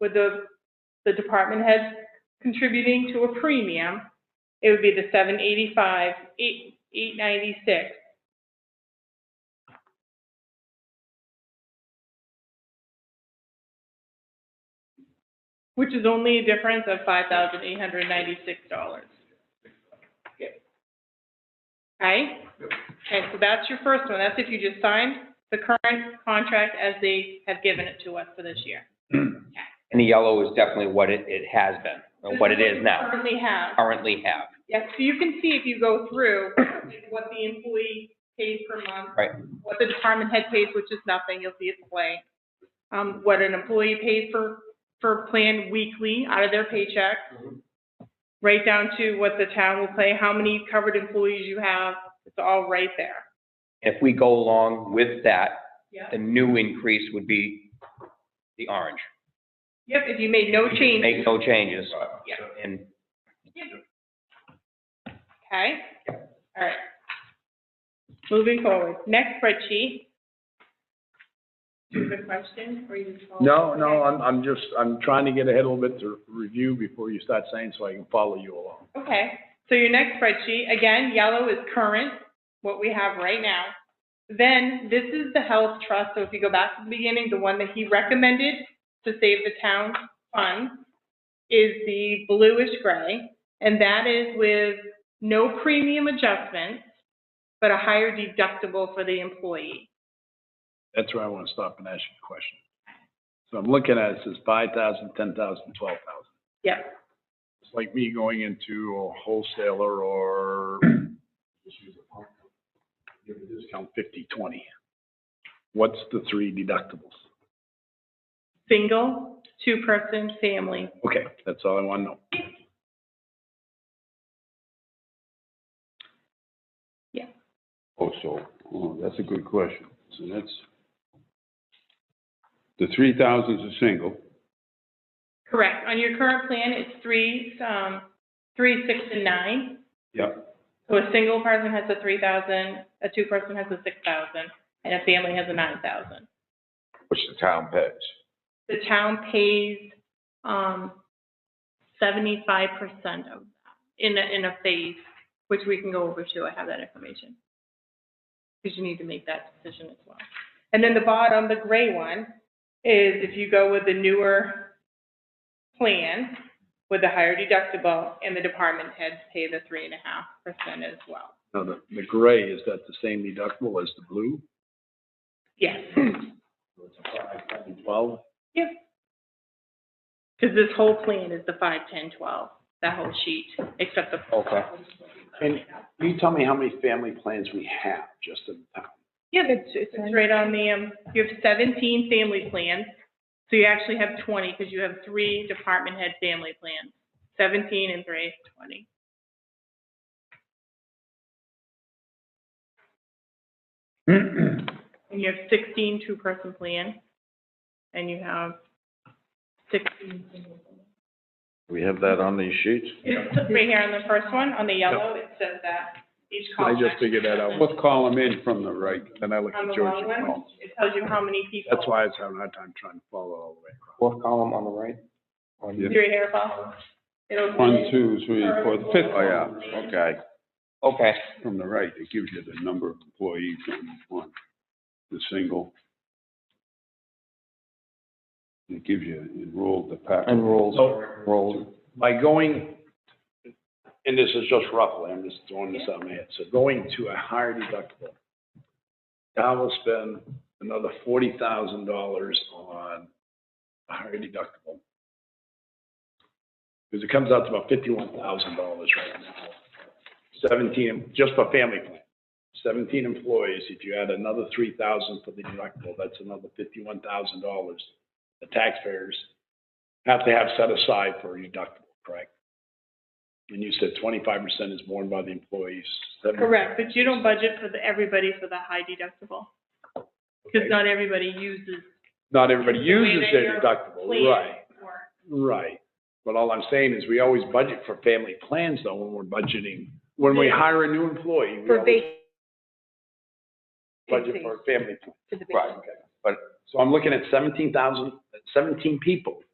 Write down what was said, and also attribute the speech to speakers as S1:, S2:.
S1: with the, the department head contributing to a premium, it would be the seven eighty-five, eight, eight ninety-six. Which is only a difference of five thousand eight hundred ninety-six dollars. Okay? Okay, so that's your first one. That's if you just signed the current contract as they have given it to us for this year.
S2: And the yellow is definitely what it, it has been, or uh, what it
S1: This
S2: is
S1: we
S2: now,
S1: Currently have.
S2: currently have.
S1: Yes, so you can see if you go through like, what the employee pays per month.
S2: Right.
S1: What the department head pays, which is nothing, you'll see it's blank. Um, what an employee pays for, for plan weekly out of their paycheck.
S2: Mm-hmm.
S1: Right down to what the town will pay, how many covered employees you have, it's all right there.
S2: If we go along with that,
S1: Yep.
S2: the new increase would be the orange.
S1: Yep, if you made no change,
S2: Make no changes.
S1: Yeah.
S2: And
S1: okay? All right. Moving forward, next spreadsheet. Do you have a question or you just? follow?
S3: No, no,
S1: Oh, Okay.
S3: I'm, I'm just, I'm trying to get ahead a little bit to review before you start saying so I can follow you along.
S1: Okay, so your next spreadsheet, again, yellow is current, what we have right now. Then this is the health trust, so if you go back to the beginning, the one that he recommended to save the town fund is the bluish gray, and that is with no premium adjustments, but a higher deductible for the employee.
S3: That's where I want to stop and ask you a question. So I'm looking at it, it says five thousand, ten thousand, twelve thousand.
S1: Yep,
S3: It's like me going into a wholesaler or just use a pump. Give a discount fifty, twenty. What's the three deductibles?
S1: single, two-person, family.
S3: Okay, that's all I want to know.
S4: Oh, so, oh, that's a good question. So that's, the three thousand's a single,
S1: Correct, on your current plan, it's three, um, three, six, and nine.
S4: Yep.
S1: So a single person has a three thousand, a two person has a six thousand, and a family has a nine thousand.
S4: which the town pays.
S1: The town pays, um, seventy-five percent of, that in a, in a phase, which we can go over too, I have that information. Because you need to make that decision as well. And then the bottom, the gray one, is if you go with the newer plan with the higher deductible and the department heads pay the three and a half percent as well.
S3: Now, the, the gray, is that the same deductible as the blue?
S1: Yes,
S3: So it's a five, ten, Twelve?
S1: because this whole plan is the five, ten, twelve, that whole sheet, except the.
S2: Okay.
S3: And- Can you tell me how many family plans we have just in town?
S1: Yeah, that's, it's right on the, um, you have seventeen family plans, so you actually have twenty, because you have three department head family plans, seventeen and three, twenty. And you have sixteen two-person plans, and you have sixteen. single plans.
S4: We have that on these sheets?
S1: It's right here on the first one, on the yellow, it says that, each
S3: I
S1: column.
S3: just figured that out.
S4: Let's call them in from the right, then I look
S1: On
S4: at
S1: the
S4: George.
S1: long
S4: and
S1: one,
S4: Paul.
S1: it tells you how many people.
S3: That's why I was having a hard time trying to follow all the way across.
S2: fourth column on the right? On the-
S4: Yeah.
S1: Three hair files. It'll.
S4: One, two, three, four, the fifth.
S1: Oh,
S4: yeah, okay.
S2: Okay,
S4: From the right, it gives you the number of employees on each one, the single. It gives you enrolled, the pack.
S2: and rolls,
S3: So-
S2: rolls.
S3: By going, and this is just roughly, I'm just throwing this out in my head, so going to a higher deductible, I will spend another forty thousand dollars on a higher deductible. Because it comes out to about fifty-one thousand dollars right now. Seventeen, just for family plan, seventeen employees, if you add another three thousand for the deductible, that's another fifty-one thousand dollars. The taxpayers have to have set aside for a deductible, correct? And you said twenty-five percent is borne by the employees. 70
S1: Correct, but you don't budget for the, everybody for the high deductible, because
S3: okay.
S1: not everybody uses.
S3: Not everybody
S1: the way
S3: uses
S1: that
S3: their
S1: your
S3: deductible,
S1: plan
S3: right,
S1: works.
S3: right. But all I'm saying is we always budget for family plans though when we're budgeting, when we hire a new employee, we
S5: For
S3: always
S5: vac-
S3: budget for a family plan.
S5: for the
S3: Right,
S5: vac-
S3: okay. But, so I'm looking at seventeen thousand, seventeen people